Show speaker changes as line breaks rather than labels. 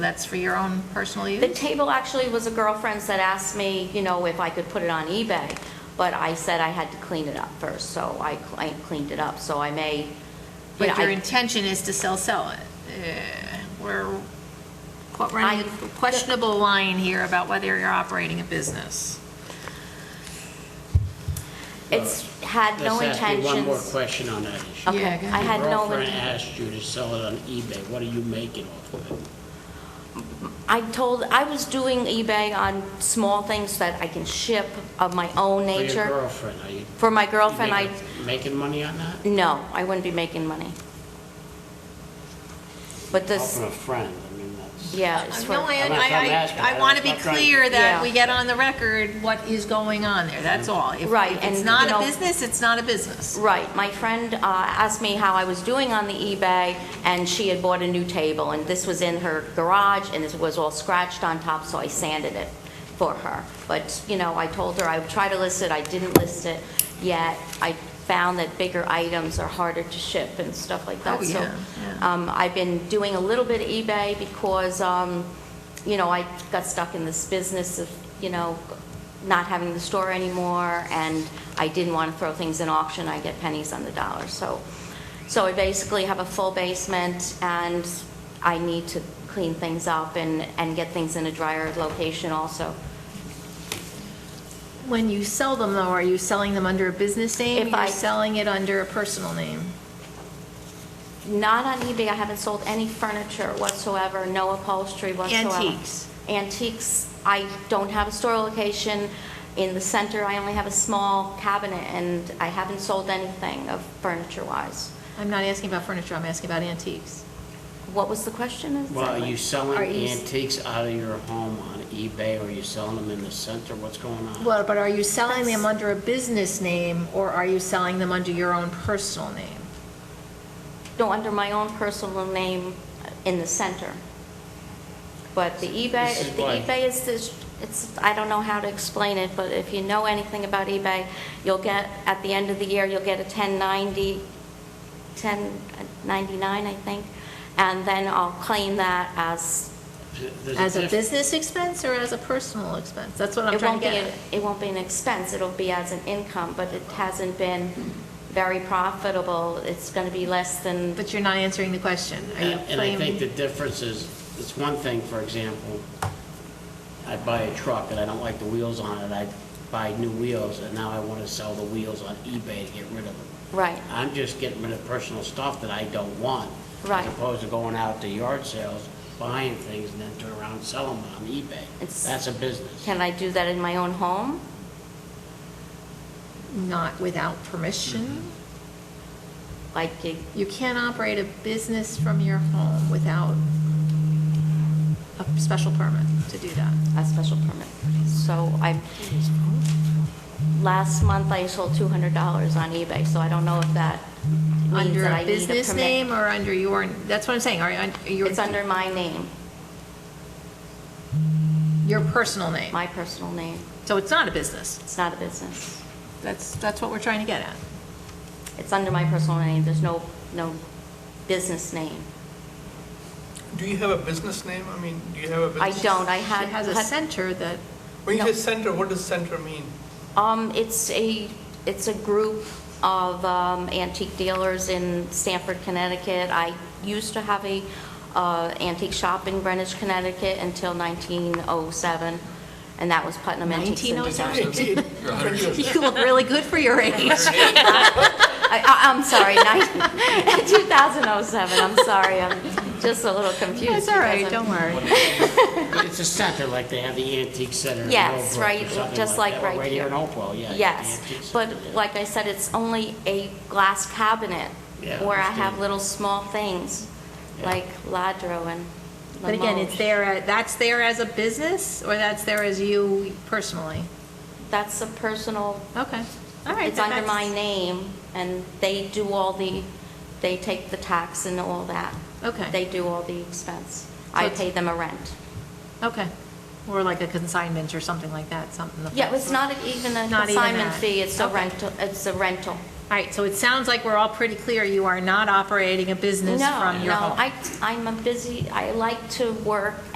That's for your own personal
The
use?
table actually was a girlfriend's that asked me, you know, if I could put it on eBay, but I said I had to clean it up first, so I cl- I cleaned it up, so I may, you know,
But your
I-
intention is to sell, sell it. Eh, We're qu- running
I-
a questionable line here about whether you're operating a business.
it's had no
Let's ask you
intentions.
one more question on that issue.
Okay,
Yeah, go
I had
Your
no,
girlfriend
inten-
asked you to sell it on eBay, what are you making off of it?
I told, I was doing eBay on small things that I can ship of my own
For your
nature.
girlfriend, are you?
For my girlfriend, I,
making- Making money on that?
no, I wouldn't be making money. But
Off
this,
of a friend, I mean, that's.
yeah, it's for,
No, I,
I'm not- I'm asking.
I, I, I want to be
I'm not trying to-
clear that
Yeah.
we get on the record what is going on there, that's all. If-
Right,
If it's
and,
not
you know-
a business, it's not a business.
right, my friend uh, asked me how I was doing on the eBay, and she had bought a new table, and this was in her garage, and this was all scratched on top, so I sanded it for her. But, you know, I told her I would try to list it, I didn't list it yet. I found that bigger items are harder to ship and stuff like that.
Oh,
So,
yeah, yeah.
um, I've been doing a little bit of eBay because, um, you know, I got stuck in this business of, you know, not having the store anymore, and I didn't want to throw things in auction, I get pennies on the dollar, so. So I basically have a full basement, and I need to clean things up and, and get things in a drier location also.
When you sell them though, are you selling them under a business name?
If I-
You're selling it under a personal name?
Not on eBay, I haven't sold any furniture whatsoever, no upholstery whatsoever.
Antiques.
Antiques, I don't have a store location. In the center, I only have a small cabinet, and I haven't sold anything of furniture-wise.
I'm not asking about furniture, I'm asking about antiques.
What was the question exactly?
Well, are you selling
Are you s-
antiques out of your home on eBay, or are you selling them in the center, what's going on?
Well, but are you selling them
That's-
under a business name, or are you selling them under your own personal name?
No, under my own personal name in the center. But the eBay,
This is
the
why-
eBay is this, it's, I don't know how to explain it, but if you know anything about eBay, you'll get, at the end of the year, you'll get a 1090, 1099, I think, and then I'll claim that as,
There's
As a
diff-
business expense or as a personal expense? That's what I'm
it
trying
won't
to
be,
get at.
a- it won't be an expense, it'll be as an income, but it hasn't been very profitable. It's going to be less than
But you're not answering the question. Are you
And and I think the
claiming?
difference is, it's one thing, for example, I buy a truck and I don't like the wheels on it, I buy new wheels, and now I want to sell the wheels on eBay to get rid of them.
Right.
I'm just getting rid of personal stuff that I don't want.
Right.
As opposed to going out to yard sales, buying things, and then turn around and sell them on eBay.
It's-
That's a business.
Can I do that in my own home?
Not without permission?
Mm-hmm.
Like, it-
You can't operate a business from your home without a special permit to do that.
a special permit? So I, last month I sold $200 on eBay, so I don't know if that means
Under
that
a
I need a
business
permit.
name or under your, that's what I'm saying, are you,
It's under my name,
your personal name?
my personal name.
So it's not a business?
It's not a business.
That's, that's what we're trying to get at.
It's under my personal name. There's no, no business name.
Do you have a business name? I mean, do you have a
I
business?
don't. I
She
had.
has a
had-
center that,
When you
no.
say center, what does center mean?
Um, it's a, it's a group of um, antique dealers in Stamford, Connecticut. I used to have a uh, antique shop in Greenwich, Connecticut until 1907, and that was Putnam Antiques. and Designs.
1907.
Twenty years.
You look really good for your age. oh
I- I- I'm sorry, nine- 2007, I'm sorry, I'm just a little confused.
It's all right,
because I'm-
don't worry.
It's a center, like they have the antique center in
Yes,
Oakville or
right,
something
just like
that, or
right here.
in Oakville, yeah. you have the
Yes,
antique center
but
there.
like I said, it's only a glass cabinet
Yeah,
where I
understand.
have little small things,
Yeah.
like ladro and
But again, it's
Limoges.
there, that's there as a business, or that's there as you personally?
That's a personal,
Okay, all right.
it's
then
under
that's-
my name, and they do all the, they take the tax and all that.
Okay.
They do all the expense. I
it's-
pay them a rent.
Okay, or like a consignment or something like that, something. of
Yeah,
that
it's
sort.
not even a
Not even
consignment
that.
fee, it's a
Okay.
rental, it's a rental.
All right, so it sounds like we're all pretty clear, you are not operating a business
No,
from your home.
No, I, I'm a busy, I like to work